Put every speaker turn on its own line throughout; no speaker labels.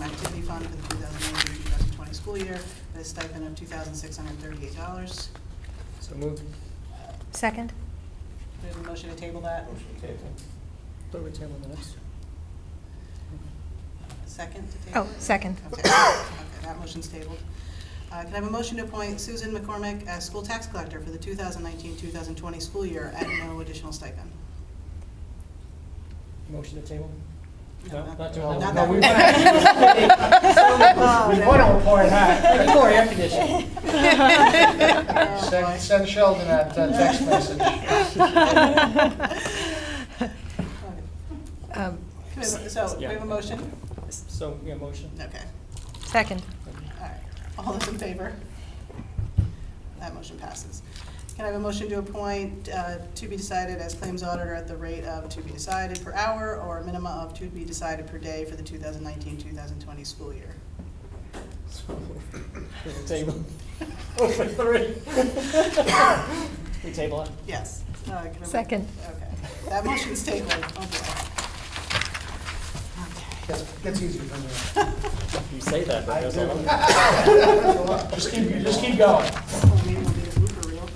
Activity Fund for the 2019-2020 school year at a stipend of $2,638.
So moved.
Second?
We have a motion to table that.
Motion table.
But we table the next.
Second to table?
Oh, second.
Okay, Okay, that motion's tabled. Uh, Can I have a motion to appoint Susan McCormick as school tax collector for the 2019-2020 school year at no additional stipend?
Motion to table?
No, not-
Not to all.
not
No,
that
we-
one.
We want to report that. We need more air conditioning.
Oh, boy.
Send- Send Sheldon that uh, text message.
Okay. Can
Um,
we have- So, we have a motion?
So, yeah, motion.
Okay,
Second.
all right. All those in favor? That motion passes. Can I have a motion to appoint uh, to be decided as claims auditor at the rate of to be decided per hour or a minimum of to be decided per day for the 2019-2020 school year?
So moved. Table. Over three. We table it?
Yes. Uh, can I have a-
Second.
Okay, that motion's tabled. Oh, boy. Okay.
Gets, gets easier from there.
You say that, but
I
there's
do.
a lot.
Just keep, just keep going.
Oh, maybe we'll do a blooper reel.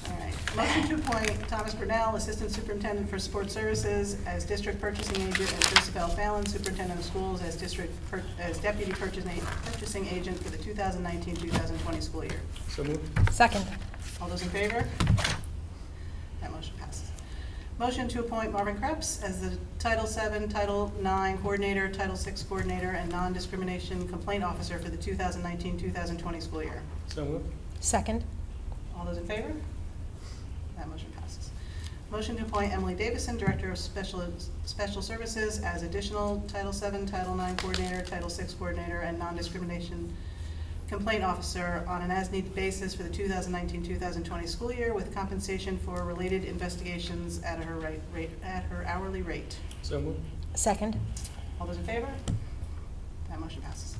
All right. Motion to appoint Thomas Brunel, Assistant Superintendent for Sports Services, as District Purchasing Agent, and Joseph L. Fallon, Superintendent of Schools, as District, Pur- as Deputy Purchasing Purchasing Agent for the 2019-2020 school year.
So moved.
Second.
All those in favor? That motion passes. Motion to appoint Marvin Krebs as the Title VII, Title IX Coordinator, Title VI Coordinator, and Non-Discrimination Complaint Officer for the 2019-2020 school year.
So moved.
Second.
All those in favor? That motion passes. Motion to appoint Emily Davison, Director of Special, Special Services, as additional Title VII, Title IX Coordinator, Title VI Coordinator, and Non-Discrimination Complaint Officer on an as-needed basis for the 2019-2020 school year with compensation for related investigations at her rate, rate, at her hourly rate.
So moved.
Second.
All those in favor? That motion passes.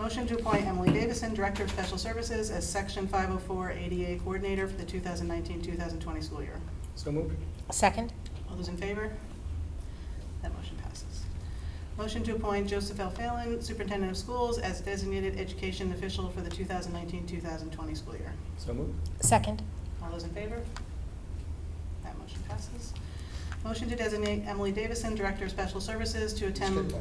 Motion to appoint Emily Davison, Director of Special Services, as Section 504 ADA Coordinator for the 2019-2020 school year.
So moved.
Second.
All those in favor? That motion passes. Motion to appoint Joseph L. Fallon, Superintendent of Schools, as Designated Education Official for the 2019-2020 school year.
So moved.
Second.
All those in favor? That motion passes. Motion to designate Emily Davison, Director of Special Services, to attend...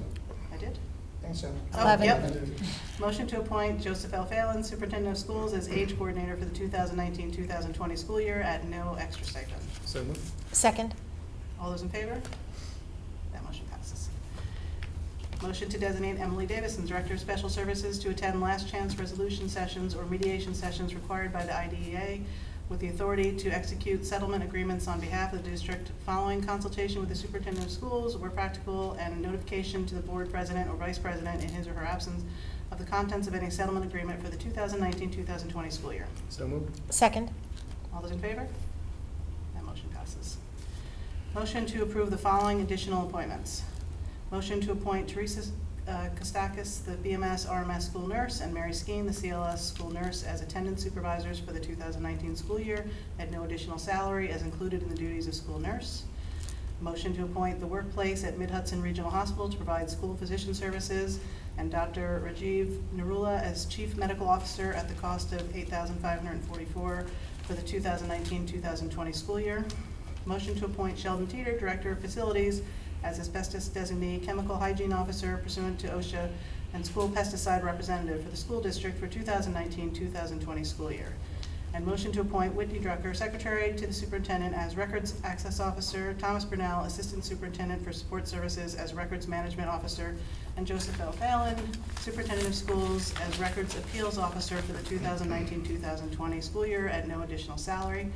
I did?
Thanks, Sally.
Oh,
Eleven.
yep. Motion to appoint Joseph L. Fallon, Superintendent of Schools, as age coordinator for the 2019-2020 school year at no extra stipend.
So moved.
Second.
All those in favor? That motion passes. Motion to designate Emily Davison, Director of Special Services, to attend last chance resolution sessions or mediation sessions required by the IDEA with the authority to execute settlement agreements on behalf of the district following consultation with the superintendent of schools where practical and notification to the board president or vice president in his or her absence of the contents of any settlement agreement for the 2019-2020 school year.
So moved.
Second.
All those in favor? That motion passes. Motion to approve the following additional appointments. Motion to appoint Teresa uh, Kostakis, the BMS RMS school nurse, and Mary Skeen, the CLS school nurse, as attendance supervisors for the 2019 school year at no additional salary as included in the duties of school nurse. Motion to appoint the workplace at Mid Hudson Regional Hospital to provide school physician services, and Dr. Rajiv Narula as Chief Medical Officer at the cost of $8,544 for the 2019-2020 school year. Motion to appoint Sheldon Teeter, Director of Facilities, as asbestos designee chemical hygiene officer pursuant to OSHA and school pesticide representative for the school district for 2019-2020 school year. And motion to appoint Whitney Drucker, Secretary to the Superintendent as Records Access Officer, Thomas Brunel, Assistant Superintendent for Support Services as Records Management Officer, and Joseph L. Fallon, Superintendent of Schools as Records Appeals Officer for the 2019-2020 school year at no additional salary.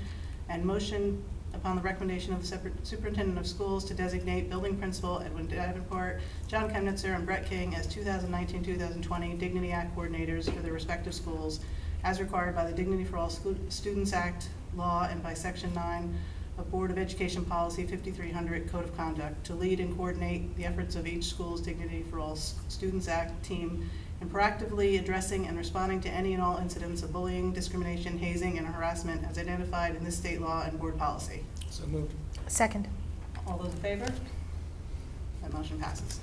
And motion upon the recommendation of the Super- Superintendent of Schools to designate Building Principal Edwin Davenport, John Chemnitzer, and Brett King as 2019-2020 Dignity Act Coordinators for their respective schools as required by the Dignity for All Scu- Students Act law and by Section 9 of Board of Education Policy 5300 Code of Conduct, to lead and coordinate the efforts of each school's Dignity for All S- Students Act team in proactively addressing and responding to any and all incidents of bullying, discrimination, hazing, and harassment as identified in this state law and board policy.
So moved.
Second.
All those in favor? That motion passes.